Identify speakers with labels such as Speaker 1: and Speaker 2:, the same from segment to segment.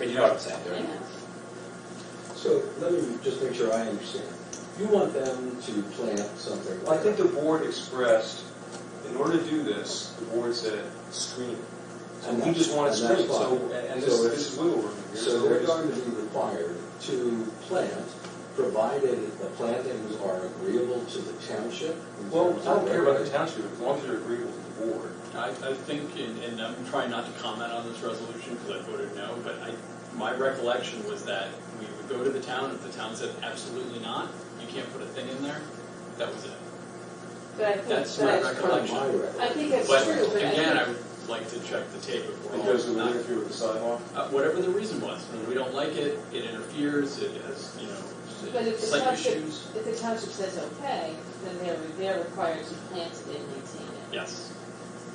Speaker 1: you know what I'm saying, right?
Speaker 2: So let me just make sure I understand. You want them to plant something?
Speaker 1: Well, I think the board expressed, in order to do this, the board said screen. And we just want to
Speaker 2: And that's
Speaker 1: screen, so,
Speaker 2: fine.
Speaker 1: and and
Speaker 2: So
Speaker 1: this,
Speaker 2: if-
Speaker 1: this is wiggle room here.
Speaker 2: So
Speaker 1: we're
Speaker 2: they're
Speaker 1: just-
Speaker 2: going to be required to plant, provided the plantings are agreeable to the township? in
Speaker 1: Well,
Speaker 2: terms
Speaker 1: I don't
Speaker 2: of
Speaker 1: care about the
Speaker 2: regulation?
Speaker 1: township, as long as they're agreeable to the board.
Speaker 3: I, I think, and, and I'm trying not to comment on this resolution because I voted no, but I, my recollection was that we would go to the town, if the town said absolutely not, you can't put a thing in there, that was it.
Speaker 4: But I think,
Speaker 3: That's
Speaker 4: but
Speaker 3: my
Speaker 4: I-
Speaker 2: That's
Speaker 3: recollection.
Speaker 2: kind of my record.
Speaker 4: I think that's
Speaker 3: But
Speaker 4: true, but I
Speaker 3: again, I
Speaker 4: think,
Speaker 3: would like to check the tape if we're all
Speaker 1: Because of the
Speaker 3: not-
Speaker 1: interfere with the sidewalk.
Speaker 3: uh, whatever the reason was, I mean, we don't like it, it interferes, it has, you
Speaker 4: But
Speaker 3: know,
Speaker 4: if the
Speaker 3: slight
Speaker 4: township-
Speaker 3: issues.
Speaker 4: if the township says okay, then they're, they're required to plant it and maintain it.
Speaker 3: Yes,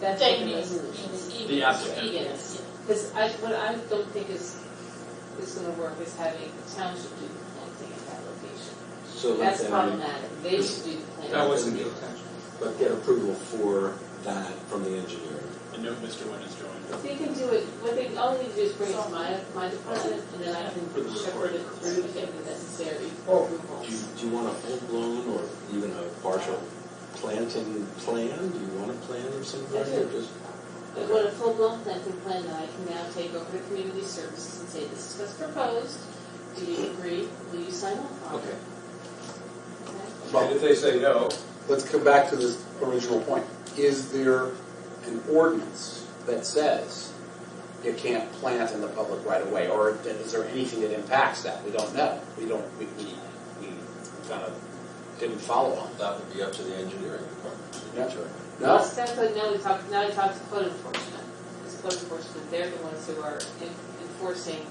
Speaker 4: That's what
Speaker 5: Thank
Speaker 4: the
Speaker 5: you.
Speaker 4: resolution is.
Speaker 3: The applicant.
Speaker 4: Yes. Because I, what I don't think is, is gonna work is having the township do the planting at that location.
Speaker 2: So let
Speaker 4: That's
Speaker 2: them,
Speaker 4: problematic, they should do the planting.
Speaker 1: That wasn't the intention.
Speaker 2: but get approval for that from the engineer.
Speaker 3: and no Mr. Wynn has joined.
Speaker 4: They can do it, what they, all they need to do is bring it to my, my department, and then I can
Speaker 3: For the
Speaker 4: shepherd
Speaker 3: recording.
Speaker 4: it through to get the necessary
Speaker 2: Oh.
Speaker 4: approvals.
Speaker 2: Do you, do you want a full-blown or even a partial planting plan? Do you want a plan of some kind or just?
Speaker 4: I want a full-blown planting plan that I can now take over to community services and say, this is what's proposed, do you agree, will you sign off on it?
Speaker 2: Okay.
Speaker 4: Okay.
Speaker 1: And if they say no,
Speaker 6: let's come back to this original point. Is there an ordinance that says you can't plant in the public right of way? Or is there anything that impacts that? We don't know. We don't, we, we, we kind of didn't follow on.
Speaker 2: That would be up to the engineering department.
Speaker 6: Yeah.
Speaker 2: Sure.
Speaker 6: No?
Speaker 4: That's that's what now we talk, now we talk to code enforcement. It's code enforcement, they're the ones who are en- enforcing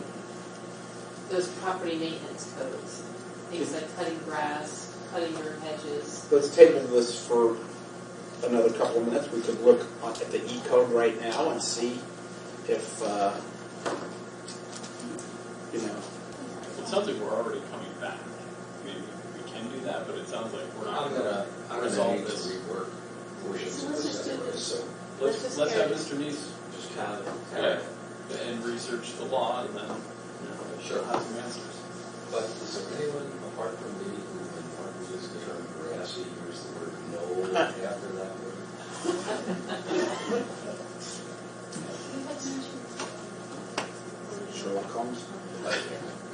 Speaker 4: those property maintenance codes. Things like cutting grass, cutting your hedges.
Speaker 6: Let's table this for another couple of minutes. We could look on- at the E code right now and see if, uh, you know,
Speaker 3: It sounds like we're already coming back. I mean, we can do that, but it sounds like we're not.
Speaker 2: I'm gonna, I'm gonna
Speaker 3: Resolve
Speaker 2: need to
Speaker 3: this.
Speaker 2: rework portions
Speaker 4: So
Speaker 2: of
Speaker 4: let's just
Speaker 2: this
Speaker 4: do
Speaker 2: anyway,
Speaker 4: this.
Speaker 2: so
Speaker 4: Let's
Speaker 3: Let's,
Speaker 4: just
Speaker 3: let's have
Speaker 4: carry-
Speaker 3: Mr. Neese
Speaker 2: just have it.
Speaker 3: Yeah. and research the law and then, you know, she'll have some answers.
Speaker 2: But is there anyone apart from me who, when Mark uses the term grassy, uses the word knoll after that word?
Speaker 6: Sherlock Holmes.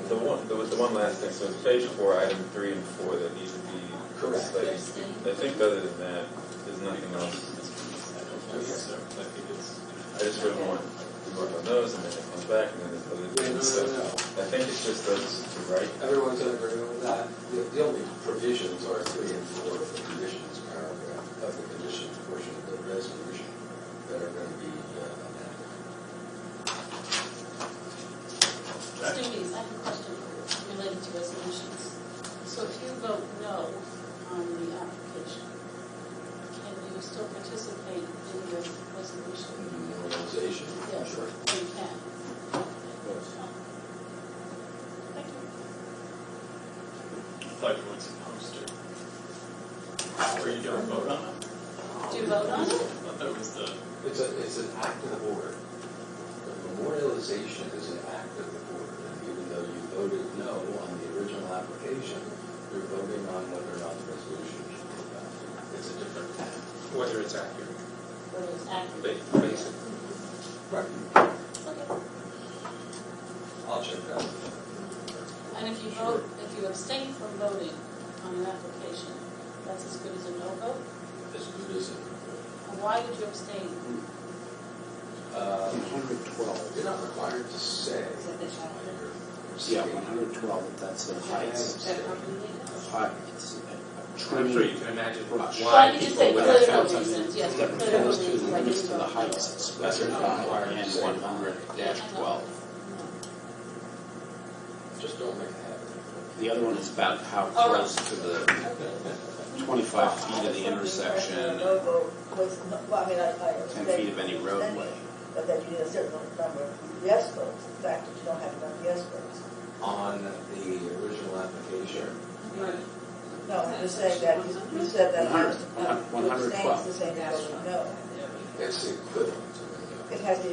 Speaker 7: The one, there was the one last thing, so it's page four, item three and four that need to be.
Speaker 2: Correct.
Speaker 7: like, I think other than that, there's nothing else.
Speaker 3: I don't think so, I think it's.
Speaker 7: I just really want to work on those and then it comes back and then there's other things. So I think it's just those, two, right?
Speaker 2: Everyone's in agreement with that? The, the only provisions are three and four of the conditions paragraph, of the conditions portion of the resolution that are gonna be uh, amended.
Speaker 5: Students, I have a question for you related to resolutions. So if you vote no on the application, can you still participate in the resolution?
Speaker 2: And the organization.
Speaker 5: Yeah. You can. Thank you.
Speaker 3: I thought you weren't supposed to. Or you don't vote on it?
Speaker 5: Do you vote on
Speaker 3: I
Speaker 5: it?
Speaker 3: thought that was the,
Speaker 2: It's a, it's an act of the board. The memorialization is an act of the board, and even though you voted no on the original application, you're voting on whether or not the resolution should be adopted. It's a different act.
Speaker 1: whether it's accurate.
Speaker 5: But it's accurate.
Speaker 1: Ba- Basically,
Speaker 2: Right.
Speaker 5: Okay.
Speaker 2: I'll check that.
Speaker 5: And if you vote, if you abstain from voting on an application, that's as good as a no vote?
Speaker 2: As good as it.
Speaker 5: And why did you abstain?
Speaker 2: Uh,
Speaker 6: 112.
Speaker 2: You're not required to say.
Speaker 4: Is that the chapter?
Speaker 6: Yeah, 112, that's the heights.
Speaker 4: Is that property maintenance?
Speaker 6: hot, it's a training
Speaker 1: can imagine
Speaker 6: rush.
Speaker 5: Well, you just say
Speaker 6: People without
Speaker 5: political
Speaker 6: counsel.
Speaker 5: reasons, yes,
Speaker 6: That
Speaker 5: for political
Speaker 6: refers to
Speaker 5: reasons,
Speaker 6: the
Speaker 5: like
Speaker 6: limits
Speaker 5: you
Speaker 6: to the
Speaker 5: vote no.
Speaker 6: heights specified in one hundred twelve.
Speaker 2: Just don't make it happen.
Speaker 6: The other one is about how
Speaker 5: Oh.
Speaker 6: close to the twenty-five feet of the intersection and
Speaker 8: Was, well, I mean, I, I
Speaker 6: ten
Speaker 8: understand.
Speaker 6: feet of any roadway.
Speaker 8: But that you need a certain number of yes votes, the fact that you don't have enough yes votes.
Speaker 2: On the original application,
Speaker 4: Right.
Speaker 8: No, I'm just saying that, you you said that.
Speaker 6: 100, 112.
Speaker 8: Abstain is the same as voting no.
Speaker 2: it's the equivalent of a no.
Speaker 8: It has the